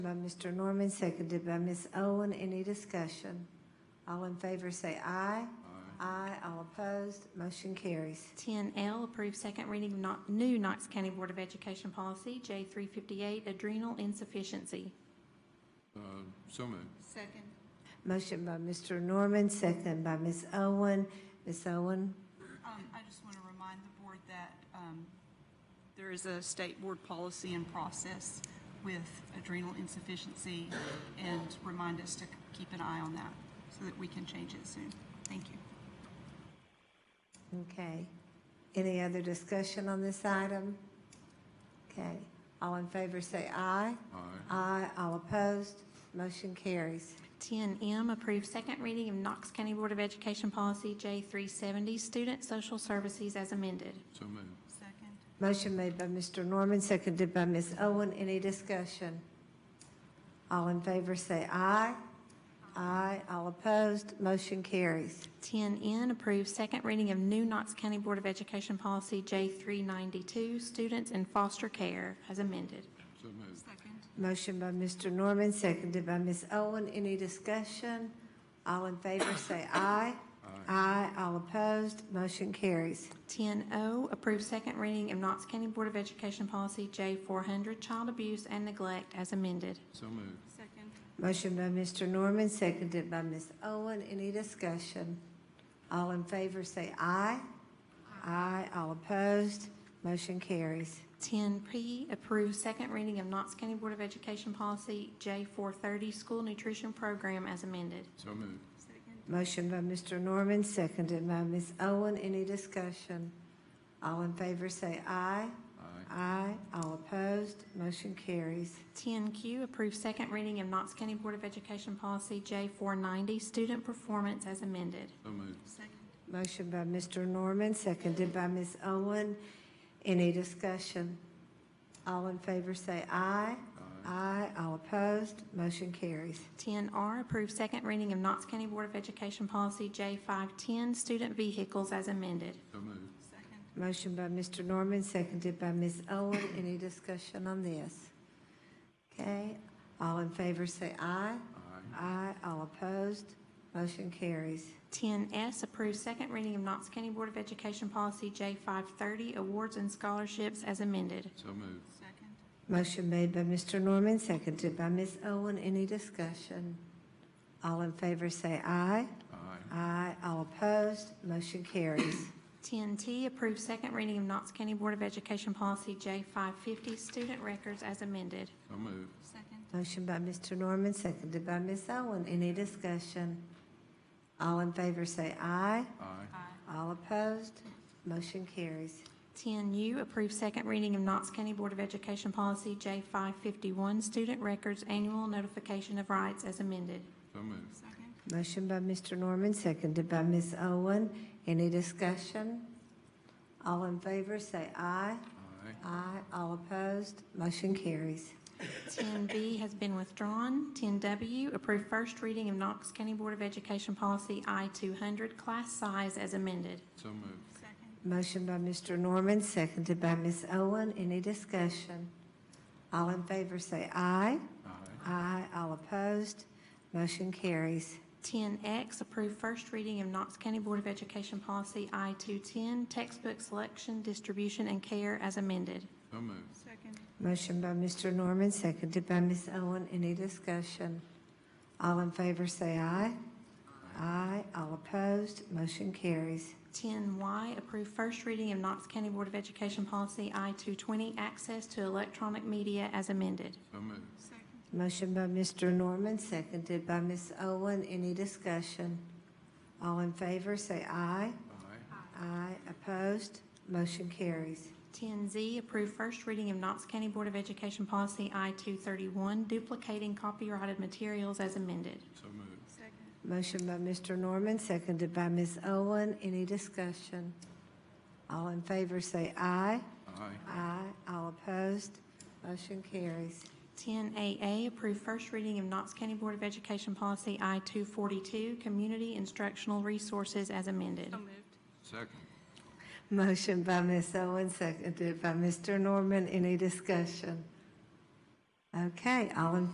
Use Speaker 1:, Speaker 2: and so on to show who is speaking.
Speaker 1: By Mr. Norman, seconded by Ms. Owen. Any discussion? All in favor say aye. Aye. All opposed, motion carries.
Speaker 2: 10L, approve second reading of not- new Knox County Board of Education policy, J358, adrenal insufficiency.
Speaker 3: Uh, So moved.
Speaker 4: Second.
Speaker 1: Motion by Mr. Norman, seconded by Ms. Owen. Ms. Owen?
Speaker 4: Um, I just want to remind the board that, um, there is a state board policy and process with adrenal insufficiency and remind us to keep an eye on that so that we can change it soon. Thank you.
Speaker 1: Okay. Any other discussion on this item? Okay. All in favor say aye.
Speaker 3: Aye.
Speaker 1: Aye. All opposed, motion carries.
Speaker 2: 10M, approve second reading of Knox County Board of Education policy, J370, student social services as amended.
Speaker 3: So moved.
Speaker 4: Second.
Speaker 1: Motion made by Mr. Norman, seconded by Ms. Owen. Any discussion? All in favor say aye. Aye. All opposed, motion carries.
Speaker 2: 10N, approve second reading of new Knox County Board of Education policy, J392, students in foster care as amended.
Speaker 3: So moved.
Speaker 4: Second.
Speaker 1: Motion by Mr. Norman, seconded by Ms. Owen. Any discussion? All in favor say aye. Aye. All opposed, motion carries.
Speaker 2: 10O, approve second reading of Knox County Board of Education policy, J400, child abuse and neglect as amended.
Speaker 3: So moved.
Speaker 4: Second.
Speaker 1: Motion by Mr. Norman, seconded by Ms. Owen. Any discussion? All in favor say aye. Aye. All opposed, motion carries.
Speaker 2: 10P, approve second reading of Knox County Board of Education policy J430, school nutrition program as amended.
Speaker 3: So moved.
Speaker 4: Second.
Speaker 1: Motion by Mr. Norman, seconded by Ms. Owen. Any discussion? All in favor say aye.
Speaker 3: Aye.
Speaker 1: Aye. All opposed, motion carries.
Speaker 2: 10Q, approve second reading of Knox County Board of Education policy J490, student performance as amended.
Speaker 3: So moved.
Speaker 4: Second.
Speaker 1: Motion by Mr. Norman, seconded by Ms. Owen. Any discussion? All in favor say aye.
Speaker 3: Aye.
Speaker 1: Aye. All opposed, motion carries.
Speaker 2: 10R, approve second reading of Knox County Board of Education policy J510, student vehicles as amended.
Speaker 3: So moved.
Speaker 4: Second.
Speaker 1: Motion by Mr. Norman, seconded by Ms. Owen. Any discussion on this? Okay, all in favor say aye.
Speaker 3: Aye.
Speaker 1: Aye. All opposed, motion carries.
Speaker 2: 10S, approve second reading of Knox County Board of Education policy J530, awards and scholarships as amended.
Speaker 3: So moved.
Speaker 4: Second.
Speaker 1: Motion made by Mr. Norman, seconded by Ms. Owen. Any discussion? All in favor say aye.
Speaker 3: Aye.
Speaker 1: Aye. All opposed, motion carries.
Speaker 2: 10T, approve second reading of Knox County Board of Education Policy J550, student records as amended.
Speaker 3: So moved.
Speaker 4: Second.
Speaker 1: Motion by Mr. Norman, seconded by Ms. Owen. Any discussion? All in favor say aye.
Speaker 3: Aye.
Speaker 4: Aye.
Speaker 1: All opposed, motion carries.
Speaker 2: 10U, approve second reading of Knox County Board of Education Policy J551, student records annual notification of rights as amended.
Speaker 3: So moved.
Speaker 4: Second.
Speaker 1: Motion by Mr. Norman, seconded by Ms. Owen. Any discussion? All in favor say aye.
Speaker 3: Aye.
Speaker 1: Aye. All opposed, motion carries.
Speaker 2: 10B has been withdrawn. 10W, approve first reading of Knox County Board of Education Policy I200, class size as amended.
Speaker 3: So moved.
Speaker 4: Second.
Speaker 1: Motion by Mr. Norman, seconded by Ms. Owen. Any discussion? All in favor say aye.
Speaker 3: Aye.
Speaker 1: Aye. All opposed, motion carries.
Speaker 2: 10X, approve first reading of Knox County Board of Education Policy I-210, textbook selection, distribution, and care as amended.
Speaker 3: So moved.
Speaker 4: Second.
Speaker 1: Motion by Mr. Norman, seconded by Ms. Owen. Any discussion? All in favor say aye. Aye. All opposed, motion carries.
Speaker 2: 10Y, approve first reading of Knox County Board of Education Policy I-220, access to electronic media as amended.
Speaker 3: So moved.
Speaker 4: Second.
Speaker 1: Motion by Mr. Norman, seconded by Ms. Owen. Any discussion? All in favor say aye.
Speaker 3: Aye.
Speaker 1: Aye. Opposed, motion carries.
Speaker 2: 10Z, approve first reading of Knox County Board of Education Policy I-231, duplicating copyrighted materials as amended.
Speaker 3: So moved.
Speaker 4: Second.
Speaker 1: Motion by Mr. Norman, seconded by Ms. Owen. Any discussion? All in favor say aye.
Speaker 3: Aye.
Speaker 1: Aye. All opposed, motion carries.
Speaker 2: 10AA, approve first reading of Knox County Board of Education Policy I-242, Community Instructional Resources as amended.
Speaker 4: So moved.
Speaker 3: Second.
Speaker 1: Motion by Ms. Owen, seconded by Mr. Norman. Any discussion? Okay, all in